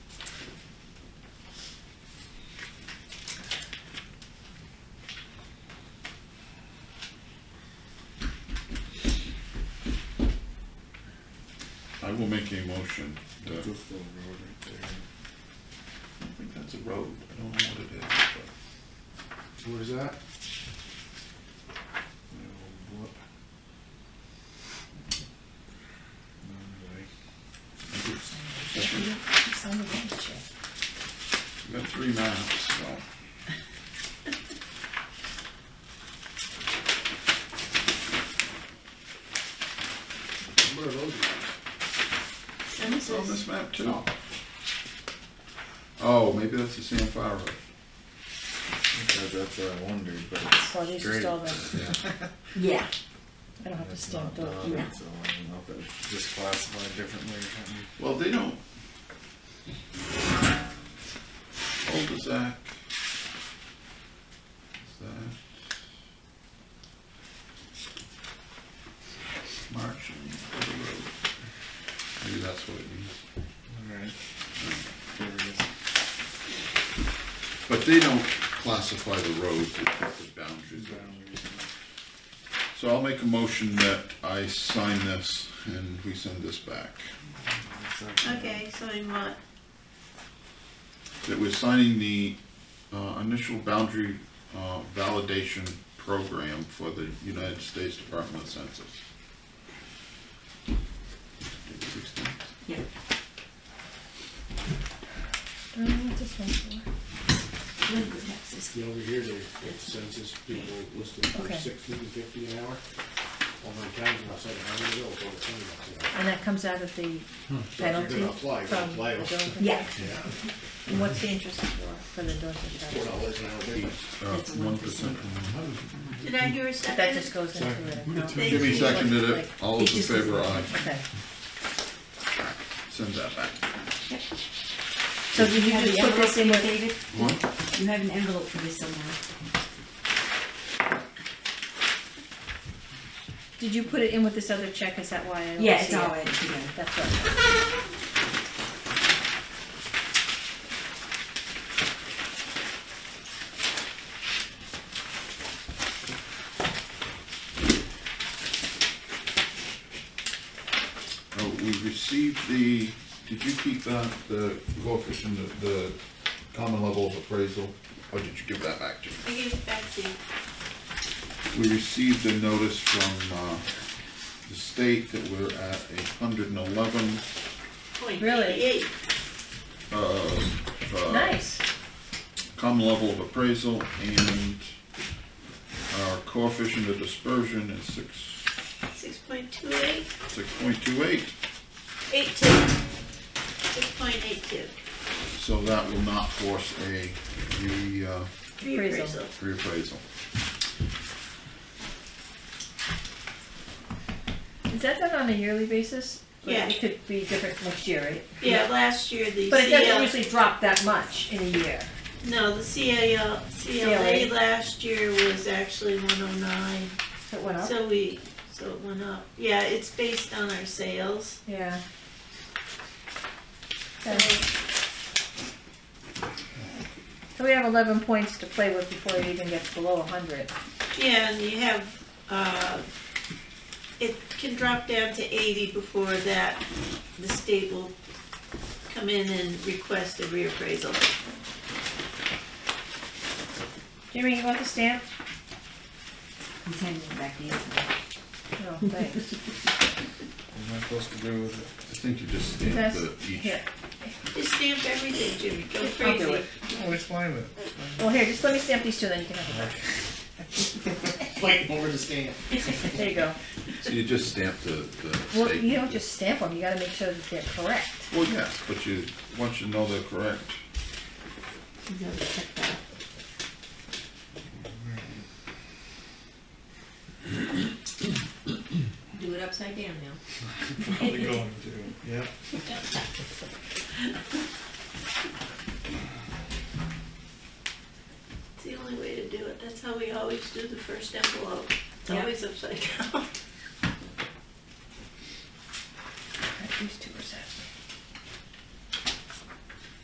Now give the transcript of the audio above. make a motion. to- That's this little road right there. I think that's a road, I don't know what it is, but. Where's that? Little blip. Anyway, It's on the bench, yeah. I've Got three maps, so. Where are those? And this It's on is, this map too. Oh, maybe that's the San Faro. Because that's what I wondered, but it's oh, these are straight. still the, Yeah, I don't have to It's stamp not those, dotted, yeah. So I don't know if it's just classified differently or something. Well, they don't. Old is that? Is that? March and River Road. Maybe that's what it means. Alright. There it is. But they don't classify the roads, they put the boundaries. Boundaries. So I'll make a motion that I sign this and we send this back. It's like- okay, so in what? That we're signing the uh, initial boundary uh, validation program for the United States Department of Census. Yeah. I don't know what this one's for. Lincoln, Texas. Yeah, over here, they have census people listed for Okay. sixteen fifty an hour. Over in Townsend, outside of Harmony Hill, it's over twenty bucks an hour. And that comes out of the So if you're penalty gonna apply, from you gotta apply the it. Dover? Yeah, And what's the interest for, for the Dover Four charge? dollars an hour difference. That's a Uh, One percent. did I hear a second? That just goes into it. no? They- Jimmy seconded it, all those in It just- favor, aye. Okay, Send that back. so did you Have just the put envelope this in here, with, David? What? You have an envelope for this somewhere. did you put it in with this other check, is that why I don't see it? Yeah, it's all added together. That's right. Oh, we received the, did you keep that, the coefficient, the- the common level of appraisal? Or did you give that back to me? I give it back to you. We received a notice from, uh, the state that we're at a hundred and eleven, Point Really? eighty-eight. uh, uh, Nice, common level of appraisal and our coefficient of dispersion is six, Six point two eight, six point two eight. eight two. Six point eight two. So that will not force a re, uh, Reappraisal. reappraisal. is that done on a yearly basis? Like, Yeah. It could be different next year, right? Yeah, last year the But it doesn't CL usually drop that much in a year. No, the CAL, CLA CLA. last year was actually one oh nine, It went up? so we, so it went up. Yeah, it's based on our sales. Yeah. So, So we have eleven points to play with before it even gets below a hundred. yeah, and you have, uh, it can drop down to eighty before that, the state will come in and request a reappraisal. Jimmy, you want the stamp? I'm sending it back to you. No, thanks. What am I supposed to do with it? I think you just stamp That's- the each. Here, Just stamp everything, Jimmy, go I'll do crazy. it. Oh, it's fine with it. Well, here, just let me stamp these two, then you can have it Fighting over the stand. back. There you go. So you just stamp the, the state. Well, you don't just stamp them, you gotta make sure that they're correct. Well, yes, but you, once you know they're correct, Do it upside down now. Probably going to, yep. It's the only way to do it. That's how we always do the first envelope. It's Yeah. always upside down.